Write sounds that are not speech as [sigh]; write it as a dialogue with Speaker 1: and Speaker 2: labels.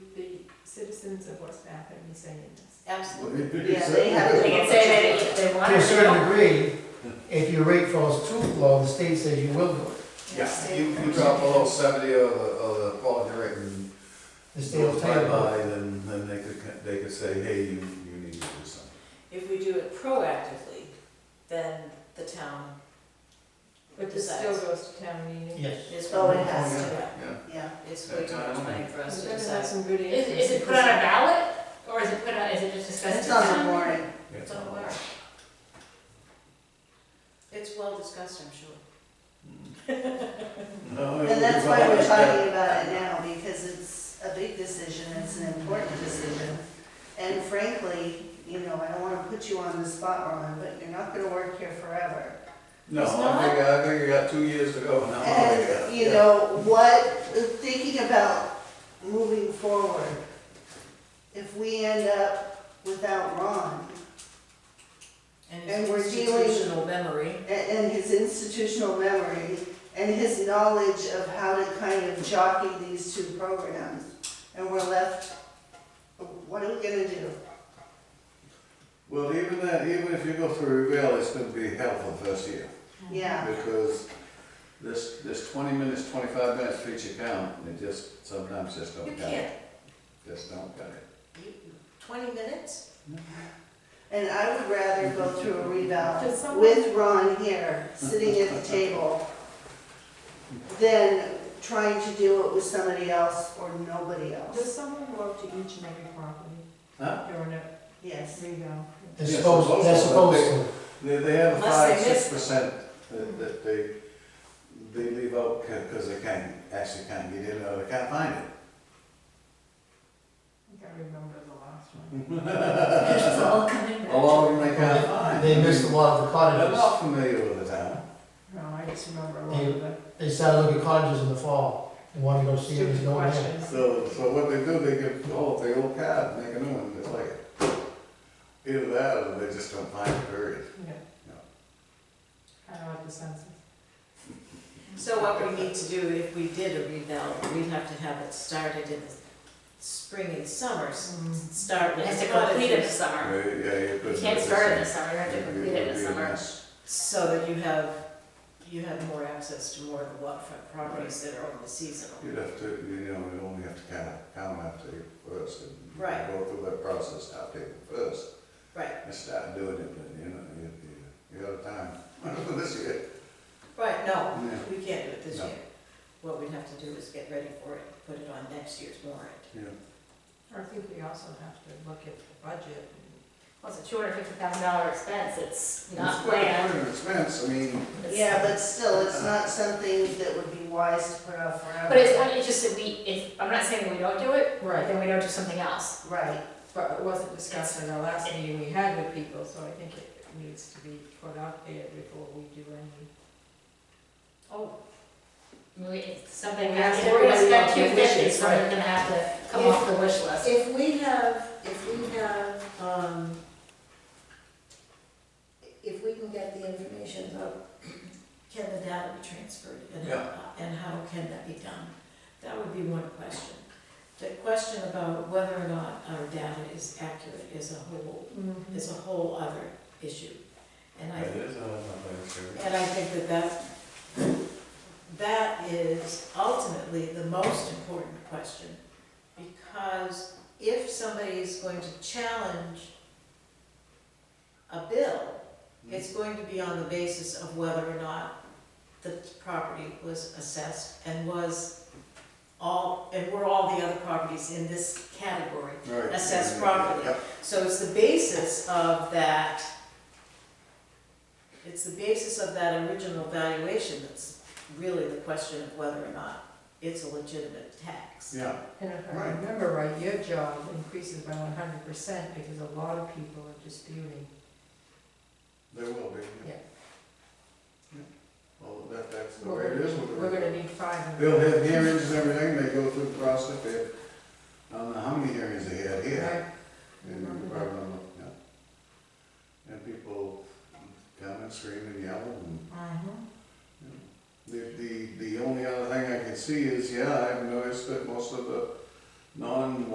Speaker 1: citizens of West Bath have been saying this.
Speaker 2: Absolutely,
Speaker 3: Well, you- you
Speaker 2: yeah,
Speaker 3: can
Speaker 2: they
Speaker 3: say-
Speaker 2: have, they can say that if they want
Speaker 4: To a certain
Speaker 2: to.
Speaker 4: degree, if your rate falls too low, the state says you will do it.
Speaker 3: Yeah, you, you drop below seventy of the, of the quality rate and
Speaker 4: The state will
Speaker 3: goes
Speaker 4: tell
Speaker 3: bye
Speaker 4: you. no.
Speaker 3: bye, then, then they could, ca- they could say, hey, you, you need to do something.
Speaker 2: If we do it proactively, then the town
Speaker 1: But this still
Speaker 2: decides.
Speaker 1: goes to town meeting.
Speaker 4: Yes.
Speaker 2: It's
Speaker 3: Oh,
Speaker 2: what it has
Speaker 4: yeah.
Speaker 2: to,
Speaker 3: Yeah.
Speaker 5: Yeah.
Speaker 2: it's way too much money for us
Speaker 1: We've
Speaker 2: to
Speaker 1: got to have
Speaker 2: decide.
Speaker 1: some good
Speaker 6: Is,
Speaker 1: answers.
Speaker 6: is it put on a ballot, or is it put on, is it just discussed?
Speaker 5: It's
Speaker 6: at
Speaker 5: on the
Speaker 6: town meeting?
Speaker 5: warning.
Speaker 3: Yeah.
Speaker 2: It's on where? It's well discussed, I'm sure.
Speaker 3: Mm. No, it would
Speaker 5: And that's
Speaker 3: be
Speaker 5: why we're
Speaker 3: fine.
Speaker 5: talking about it now, because it's a big decision, it's an important decision. And frankly, you know, I don't wanna put you on the spot, Ron, but you're not gonna work here forever.
Speaker 3: No,
Speaker 2: It's
Speaker 3: I think, I think you got two years to go now. I got-
Speaker 5: And, you
Speaker 3: yeah.
Speaker 5: know, what, thinking about moving forward, if we end up without Ron
Speaker 2: And
Speaker 5: And
Speaker 2: his
Speaker 5: we're dealing-
Speaker 2: institutional memory.
Speaker 5: and, and his institutional memory and his knowledge of how to kind of jockey these two programs, and we're left, what are we gonna do?
Speaker 3: Well, even that, even if you go through reveal, it's gonna be helpful first year.
Speaker 5: Yeah.
Speaker 3: Because this, this twenty minutes, twenty-five minutes for each account, it just, sometimes just
Speaker 2: You
Speaker 3: don't cut it.
Speaker 2: can't,
Speaker 3: Just don't cut it.
Speaker 2: you, twenty minutes?
Speaker 5: [laughs] And I would rather go through a
Speaker 1: Does
Speaker 5: revow
Speaker 1: someone-
Speaker 5: with Ron here, sitting at the table, than trying to do it with somebody else or nobody
Speaker 1: Does
Speaker 5: else.
Speaker 1: someone go up to each and every property
Speaker 3: Huh?
Speaker 1: during a um,
Speaker 5: Yes.
Speaker 1: revale?
Speaker 4: They're
Speaker 3: Yeah,
Speaker 4: supposed, they're
Speaker 3: supposed
Speaker 4: supposed
Speaker 3: to.
Speaker 4: to.
Speaker 3: They, they have a
Speaker 2: Unless
Speaker 3: five,
Speaker 2: they miss
Speaker 3: six percent that, that they, they leave out because they can't, actually can't get in or they can't find
Speaker 2: [laughs]
Speaker 3: it.
Speaker 1: I think I remember the last one.
Speaker 6: It's all coming back.
Speaker 3: A lot Mm-hmm. of them uh, they can't find.
Speaker 4: They missed a lot of the
Speaker 3: They're
Speaker 4: cottages.
Speaker 3: not familiar with the town.
Speaker 1: No, I just remember a lot of the
Speaker 4: They started looking at cottages in the fall and wanted to go see if there's
Speaker 1: stupid
Speaker 4: no one there.
Speaker 1: questions.
Speaker 3: So, so what they do, they give, oh, the old card, make a new one, it's like, either that or they just don't find it, period.
Speaker 1: Yeah.
Speaker 3: No.
Speaker 1: Kind of like the census.
Speaker 2: So what we need to do, if we did a revale, we'd have to have it started in the spring and summer, s-
Speaker 1: Mm.
Speaker 2: start
Speaker 6: It
Speaker 2: with.
Speaker 6: has to complete it this
Speaker 3: Yeah,
Speaker 6: summer.
Speaker 3: yeah, you
Speaker 6: You
Speaker 3: could.
Speaker 6: can't start it this summer, you have to complete it this summer.
Speaker 2: So that you have, you have more access to more of the waterfront properties that are only seasonal.
Speaker 3: You'd have to, you know, you only have to count, count after you first, and you
Speaker 2: Right.
Speaker 3: go through that process, after you first,
Speaker 2: Right,
Speaker 3: and start doing it, but, you know, you, you, you got time, for this year.
Speaker 2: right, no,
Speaker 3: Yeah.
Speaker 2: we can't do it this
Speaker 3: No.
Speaker 2: year. What we'd have to do is get ready for it, put it on next year's warrant.
Speaker 3: Yeah.
Speaker 1: I think we also have to look at the budget. and-
Speaker 6: Well, it's a two hundred fifty thousand dollar expense, it's
Speaker 3: It's
Speaker 6: not
Speaker 3: quite a
Speaker 6: planned.
Speaker 3: bit of expense, I mean,
Speaker 6: It's-
Speaker 5: Yeah, but still, it's not something that would be wise to put off forever.
Speaker 6: But it's, it's just that we, if, I'm not saying we don't do it, but
Speaker 1: Right,
Speaker 6: then we don't do something else.
Speaker 5: Right,
Speaker 1: but it wasn't discussed in our last meeting we had with people, so I think it needs to be put out there before we do any.
Speaker 6: Oh. I mean, we- it's something,
Speaker 1: We
Speaker 6: that-
Speaker 1: have
Speaker 6: if we're gonna
Speaker 1: to worry
Speaker 6: spend
Speaker 1: about
Speaker 6: two
Speaker 1: the
Speaker 6: fifty,
Speaker 1: wishes,
Speaker 6: something
Speaker 1: right.
Speaker 6: gonna have to come
Speaker 2: If-
Speaker 6: off the wish list.
Speaker 2: If we have, if we have, um, if we can get the information about can the data be transferred and, how- and how can that be done? That would be one question. The question about whether or not our data is accurate is a whole, is a whole other issue. And I
Speaker 3: it is, uh, not very sure.
Speaker 2: and I think that that, that is ultimately the most important question. Because if somebody is going to challenge a bill, it's going to be on the basis of whether or not the property was assessed and was all, and were all the other properties in this category
Speaker 3: Right.
Speaker 2: assessed properly.
Speaker 3: Yep.
Speaker 2: So it's the basis of that, it's the basis of that original valuation that's really the question of whether or not it's a legitimate tax.
Speaker 3: Yeah,
Speaker 1: And if I
Speaker 3: Right.
Speaker 1: remember right, your job increases by one hundred percent because a lot of people are disputing.
Speaker 3: there will be.
Speaker 1: Yeah.
Speaker 3: Yeah. Well, that, that's the way
Speaker 1: We're
Speaker 3: it
Speaker 1: gonna
Speaker 3: is
Speaker 1: need-
Speaker 3: with the.
Speaker 1: We're gonna need five hundred.
Speaker 3: They'll have hearings and everything, they go through the process, they, have- I don't know how many hearings they had here.
Speaker 1: Right.
Speaker 3: And you probably don't know, yeah. And people come and scream and yell and,
Speaker 1: Mhm.
Speaker 3: the, the, the only other thing I can see is, yeah, I've noticed that most of the non